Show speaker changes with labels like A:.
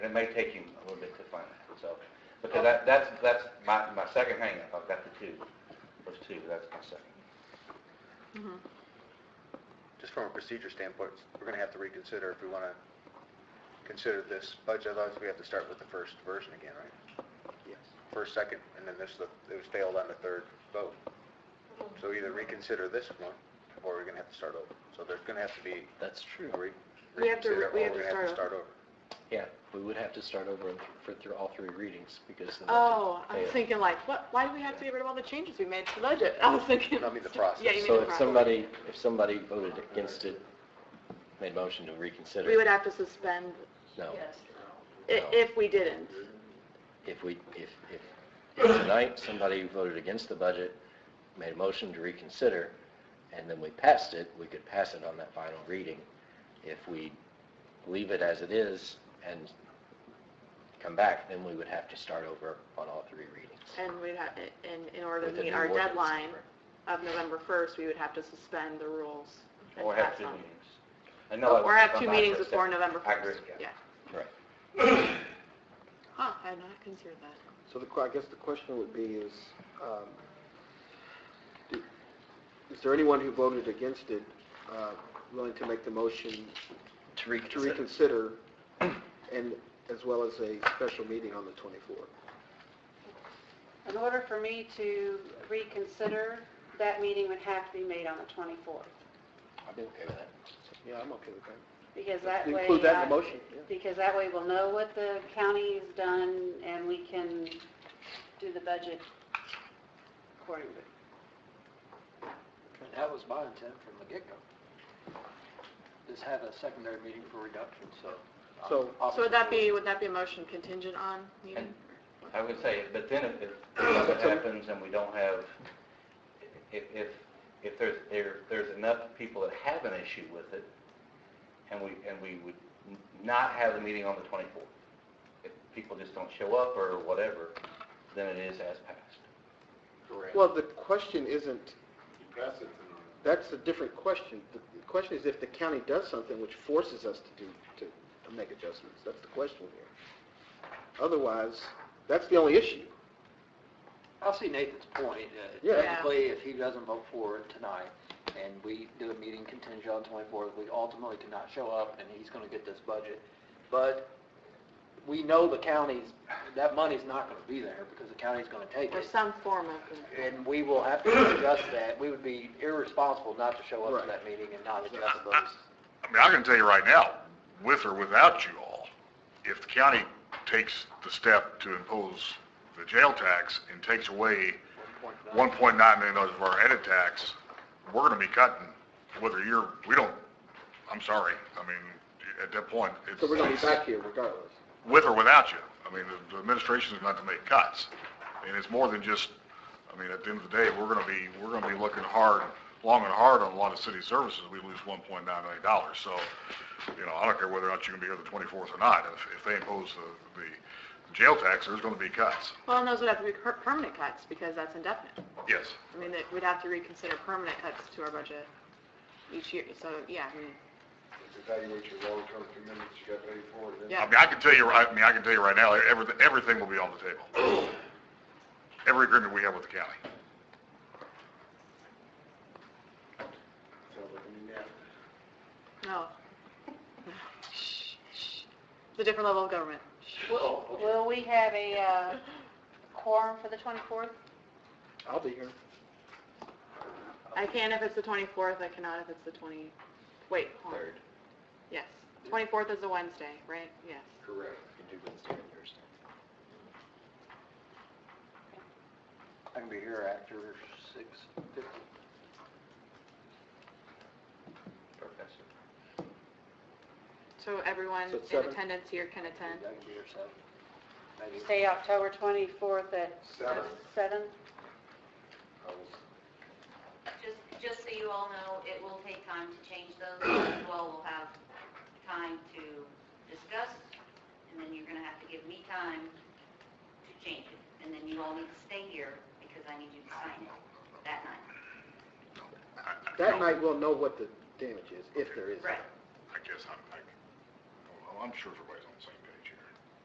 A: And it may take you a little bit to find that, so,
B: Oh.
A: because that, that's, that's my, my second hangup, I've got the two, those two, that's my second.
B: just from a procedure standpoint, we're going to have to reconsider if we want to consider this budget, otherwise we have to start with the first version again, right?
A: Yes.
B: First, second, and then this, it was failed on the third vote. So either reconsider this one, or we're going to have to start over. So there's going to have to be
C: That's true.
B: a re-
D: We have to re-
B: reconsider, or
D: we
B: we're
D: have
B: going
D: to
B: to have to
D: start
B: start over.
C: Yeah, we would have to start over and th- for, through all three readings because of the...
D: Oh, I
C: Yeah.
D: was thinking like, what, why do we have to get rid of all the changes we made to the budget? I was thinking.
B: No, I mean the process.
D: Yeah, you mean
C: So
D: the
C: if
D: process.
C: somebody, if somebody voted against it, made motion to reconsider,
D: We would have to suspend
C: no.
D: i- if we didn't.
C: If we, if, if, if tonight somebody voted against the budget, made a motion to reconsider, and then we passed it, we could pass it on that final reading. If we leave it as it is and come back, then we would have to start over on all three readings.
D: And we'd have, in, in order
C: with the
D: to meet
C: new
D: our
C: ordinance
D: deadline
C: number.
D: of November 1st, we would have to suspend the rules. and
A: Or have
D: pass
A: two
D: on.
A: meetings. I know that
D: Or have
A: was-
D: two
A: I'm not
D: meetings
A: for a
D: before
A: second.
D: November 1st.
A: I agree, yeah.
C: Right.
D: Huh, I had not considered that.
E: So the, que- I guess the question would be is, um, do- is there anyone who voted against it uh, willing to make the motion
C: To
E: to
C: reconsider.
E: reconsider and as well as a special meeting on the 24th?
F: In order for me to reconsider, that meeting would have to be made on the 24th,
C: I'd be okay with that.
E: Yeah, I'm okay with that.
F: because that way...
E: Include that in the
F: I-
E: motion, yeah.
F: Because that way we'll know what the county's done, and we can do the budget accordingly.
G: That was my intent from the get-go. Just have a secondary meeting for reduction, so.
E: So-
G: I'm
D: So would that
G: opposite.
D: be, would that be a motion contingent on meeting?
A: I would say, but then if it if it happens and we don't have, if, if, if there's, there, there's enough people that have an issue with it, and we, and we would n- not have the meeting on the 24th, if people just don't show up or whatever, then it is as passed.
E: Well, the question isn't, that's a different question. The the question is if the county does something which forces us to do, to to make adjustments. That's the question here. Otherwise, that's the only issue.
G: I see Nathan's point. uh,
E: Yeah.
D: Yeah.
G: Technically, if he doesn't vote for it tonight, and we do a meeting contingent on 24th, we ultimately cannot show up, and he's going to get this budget. But we know the county's, that money's not going to be there, because the county's going to take
D: Or
G: it.
D: some form of,
G: And we will have to adjust that. We would be irresponsible not to show up
E: Right.
G: to that meeting and not adjust those.
H: I mean, I can tell you right now, with or without you all, if the county takes the step to impose the jail tax and takes away one point nine million dollars of our edit tax, we're gonna be cutting, whether you're, we don't, I'm sorry, I mean, at that point, it's,
E: So we're going to be
H: it's
E: back here regardless.
H: with or without you. I mean, the- the administration's going to make cuts. And it's more than just, I mean, at the end of the day, we're gonna be, we're gonna be looking hard, long and hard on a lot of city services. We lose one point nine million dollars. So, you know, I don't care whether or not you're gonna be here the twenty-fourth or not. If, if they impose the, the jail tax, there's gonna be cuts.
D: well, and those would have to be per- permanent cuts because that's indefinite.
H: Yes.
D: I mean, that we'd have to reconsider permanent cuts to our budget each year, so, yeah, I mean,
B: Evaluate your long-term commitments you got paid for, and
H: I
D: yeah.
H: mean, I can tell you, right- I mean, I can tell you right now, everything, everything will be on the table. Every agreement we have with the county.
D: No. It's a different level of government.
F: Will will we have a uh, quorum for the 24th?
E: I'll be here.
D: I can if it's the 24th, I cannot if it's the 20, wait, hold on.
C: Third.
D: Yes. 24th is a Wednesday, right? Yes.
B: Correct.
C: You can do Wednesday and Thursday.
G: I can be here after 6:50.
A: Professor.
D: So everyone
E: So it's
D: in
E: seven?
D: attendance here can
G: I
D: attend.
G: can be here 7. Maybe.
F: Say October 24th at
B: Seven.
F: 7?
I: Just, just so you all know, it will take time to change those, you all will have time to discuss, and then you're gonna have to give me time to change it, and then you all need to stay here, because I need you to sign it that night.
E: That night, we'll know what the damage is, if there is.
I: Right.
H: I guess I'm, I, I'm sure everybody's on the same